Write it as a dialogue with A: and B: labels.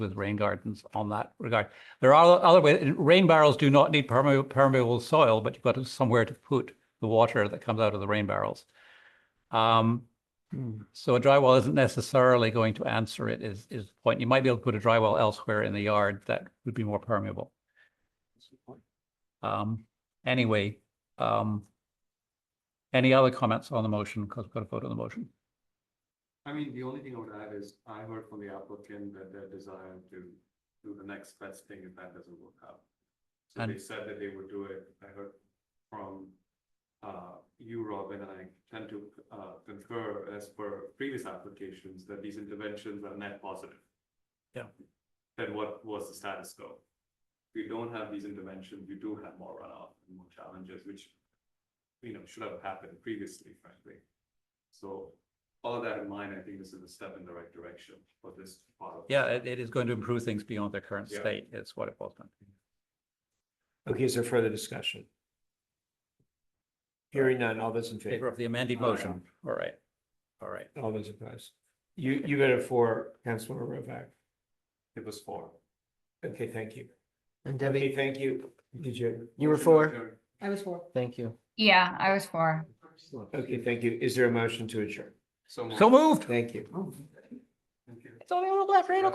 A: with rain gardens on that regard. There are other ways, and rain barrels do not need permeable, permeable soil, but you've got to- somewhere to put the water that comes out of the rain barrels. Um, so a dry well isn't necessarily going to answer it is, is the point. You might be able to put a dry well elsewhere in the yard that would be more permeable. Um, anyway, um, any other comments on the motion? Because we've got a vote on the motion.
B: I mean, the only thing I would add is I heard from the applicant that their desire to do the next best thing if that doesn't work out. So they
A: And-
B: said that they would do it. I heard from uh you, Robin, and I tend to uh concur as per previous applications that these interventions are net positive.
A: Yeah.
B: Then what was the status quo? If you don't have these interventions, you do have more runoff and more challenges, which you know, should have happened previously, frankly. So all of that in mind, I think this is a step in the right direction for this part of.
A: Yeah, it, it is going to improve things beyond their current
B: Yeah.
A: state is what it was. meant to be.
C: Okay, is there further discussion? Hearing none, all those in
A: Favor
C: favor,
A: of the amended
B: All right.
A: motion. All right. All right.
C: all those opposed. You, you voted for Councilmember Rovak.
B: It was for.
C: Okay, thank you.
D: And
C: Okay,
D: Debbie,
C: thank you. Did you?
D: you were
B: Motion to
D: for?
B: adjourn.
E: I was for.
D: Thank you.
E: Yeah, I was for.
C: Okay, thank you. Is there a motion to adjourn?
B: So.
A: So moved.
C: Thank you.
E: Oh.
B: moved. Thank you.
A: It's only a little left, right?